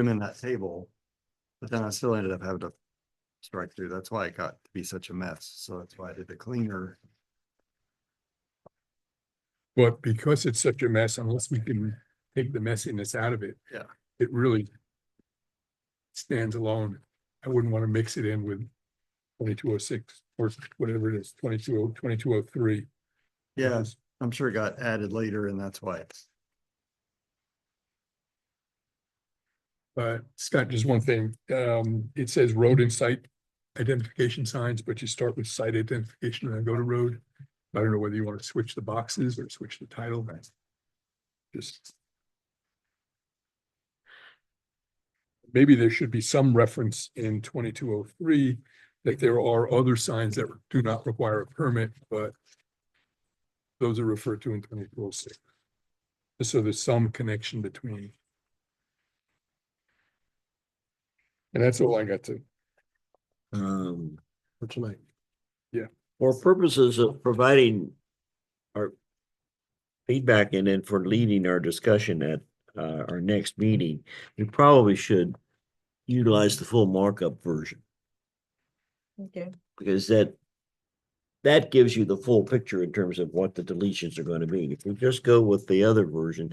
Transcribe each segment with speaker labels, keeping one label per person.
Speaker 1: him in that table. But then I still ended up having to strike through. That's why it got to be such a mess. So that's why I did the cleaner.
Speaker 2: But because it's such a mess, unless we can take the messiness out of it.
Speaker 1: Yeah.
Speaker 2: It really stands alone. I wouldn't want to mix it in with twenty-two oh six or whatever it is, twenty-two oh, twenty-two oh three.
Speaker 1: Yeah, I'm sure it got added later and that's why it's,
Speaker 2: But Uh, Scott, just one thing, um, it says road and site identification signs, but you start with site identification and then go to road. I don't know whether you want to switch the boxes or switch the title. Just. Maybe there should be some reference in twenty-two oh three that there are other signs that do not require a permit, but. Those are referred to in twenty-two oh six. So there's some connection between. And that's all I got to,
Speaker 3: Um,
Speaker 2: for tonight.
Speaker 3: for purposes of providing our feedback and then for leading our discussion at uh, our next meeting, we probably should utilize the full markup version
Speaker 4: Okay,
Speaker 3: because that that gives you the full picture in terms of what the deletions are going to be. If we just go with the other version,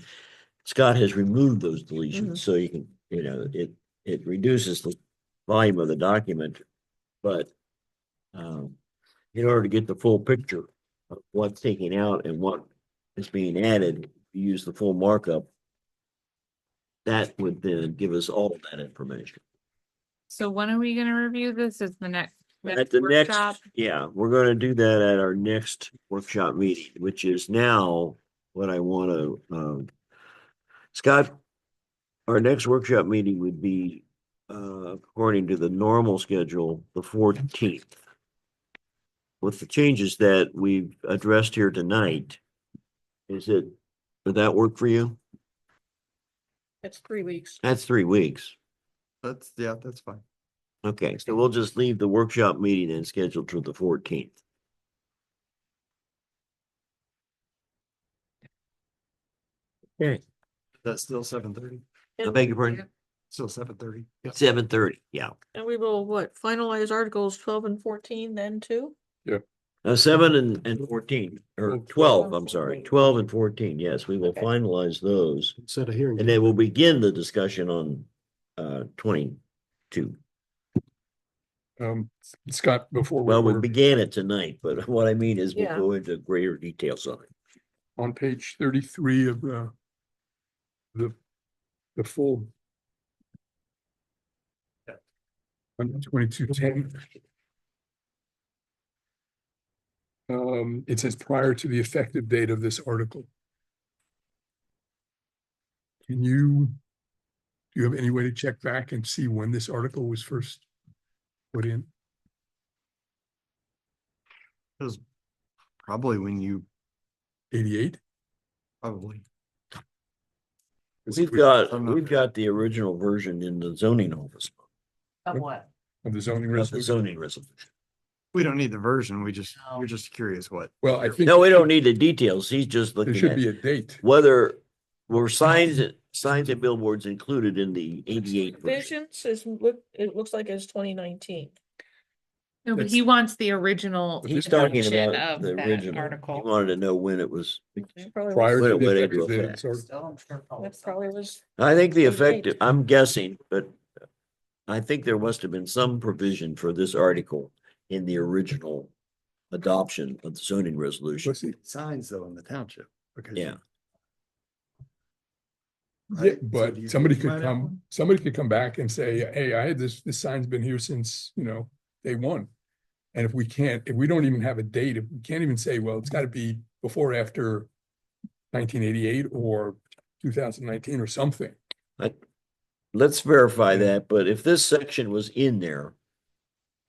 Speaker 3: Scott has removed those deletions,
Speaker 4: Mhm.
Speaker 3: so you can, you know, it it reduces the volume of the document, but um, in order to get the full picture of what's taken out and what is being added, you use the full markup. That would then give us all that information.
Speaker 5: So when are we gonna review this? Is the next?
Speaker 3: At the next,
Speaker 5: workshop?
Speaker 3: yeah, we're gonna do that at our next workshop meeting, which is now what I wanna, um. Scott, our next workshop meeting would be, uh, according to the normal schedule, the fourteenth. With the changes that we've addressed here tonight, is it, would that work for you?
Speaker 4: that's three weeks.
Speaker 3: That's three weeks.
Speaker 1: that's, yeah, that's fine.
Speaker 3: Okay, so we'll just leave the workshop meeting and schedule to the fourteenth. Okay.
Speaker 1: That's still seven thirty,
Speaker 3: I
Speaker 4: And-
Speaker 3: beg your pardon?
Speaker 1: still seven thirty.
Speaker 3: Seven thirty, yeah.
Speaker 4: And we will, what, finalize articles twelve and fourteen then too?
Speaker 3: Uh, seven and, and fourteen,
Speaker 2: Oh,
Speaker 3: or
Speaker 2: 12.
Speaker 3: twelve, I'm sorry, twelve and fourteen, yes, we will
Speaker 4: Okay.
Speaker 3: finalize those.
Speaker 2: Set a hearing.
Speaker 3: And then we'll begin the discussion on, uh, twenty-two.
Speaker 2: Um, Scott, before.
Speaker 3: Well, we
Speaker 2: were
Speaker 3: began it tonight, but what I mean is we'll
Speaker 4: Yeah.
Speaker 3: go into greater details on it.
Speaker 2: On page thirty-three of the the, the full under twenty-two ten. Um, it says prior to the effective date of this article. Can you, do you have any way to check back and see when this article was first put in?
Speaker 1: Probably when you,
Speaker 2: Eighty-eight?
Speaker 1: probably.
Speaker 3: We've got,
Speaker 1: I'm not-
Speaker 3: we've got the original version in the zoning office,
Speaker 2: Of
Speaker 4: what?
Speaker 2: Of the zoning
Speaker 3: not the
Speaker 2: resolution.
Speaker 3: zoning resolution.
Speaker 1: We don't need the version. We just,
Speaker 4: No.
Speaker 1: we're just curious what.
Speaker 2: Well, I think.
Speaker 3: No, we don't need the details. He's just
Speaker 2: There
Speaker 3: looking
Speaker 2: should
Speaker 3: at
Speaker 2: be a date.
Speaker 3: whether were signs, signs and billboards included in the eighty-eight version.
Speaker 4: Visions is, look, it looks like it's twenty nineteen.
Speaker 5: No, but
Speaker 2: That's-
Speaker 5: he wants the original.
Speaker 3: He's talking
Speaker 5: version
Speaker 3: about
Speaker 5: of
Speaker 3: the
Speaker 5: that
Speaker 3: original. He
Speaker 5: Article.
Speaker 3: wanted to know when it was.
Speaker 4: Mm-hmm.
Speaker 2: Prior
Speaker 3: Wait,
Speaker 2: to
Speaker 3: wait,
Speaker 2: the
Speaker 3: April
Speaker 2: effective date,
Speaker 3: fifth.
Speaker 2: sorry.
Speaker 4: That probably was,
Speaker 3: I think the
Speaker 4: Right.
Speaker 3: effective, I'm guessing, but I think there must have been some provision for this article in the original adoption of the zoning resolution.
Speaker 2: Let's see.
Speaker 1: Signs though in the township. because
Speaker 3: Yeah.
Speaker 2: Yeah,
Speaker 1: Right? So do you
Speaker 2: but somebody
Speaker 1: think you
Speaker 2: could
Speaker 1: might have
Speaker 2: come,
Speaker 1: one?
Speaker 2: somebody could come back and say, hey, I had this, this sign's been here since, you know, day one. And if we can't, if we don't even have a date, if we can't even say, well, it's gotta be before, or after nineteen eighty-eight or two thousand nineteen or something.
Speaker 3: Let's verify that, but if this section was in there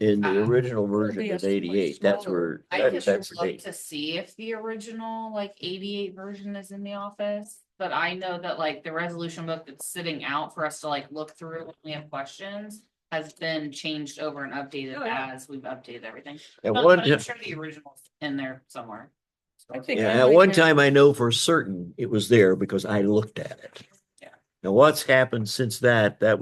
Speaker 3: in the
Speaker 6: Uh,
Speaker 3: original version
Speaker 4: be
Speaker 3: of
Speaker 4: a
Speaker 3: eighty-eight, that's
Speaker 4: smaller-
Speaker 3: where,
Speaker 6: I
Speaker 3: that-
Speaker 6: just
Speaker 3: that's
Speaker 6: would
Speaker 3: the
Speaker 6: love
Speaker 3: date.
Speaker 6: to see if the original like eighty-eight version is in the office, but I know that like the resolution book that's sitting out for us to like look through when we have questions. Has been changed over and updated
Speaker 4: Oh, yeah.
Speaker 6: as we've updated everything.
Speaker 3: At
Speaker 6: But-
Speaker 3: one,
Speaker 6: but I'm
Speaker 3: ti-
Speaker 6: sure the original's in there somewhere.
Speaker 4: I think. I
Speaker 3: yeah, at
Speaker 4: might
Speaker 3: one
Speaker 4: have-
Speaker 3: time I know for certain it was there because I looked at it.
Speaker 6: Yeah.
Speaker 3: Now what's happened since that, that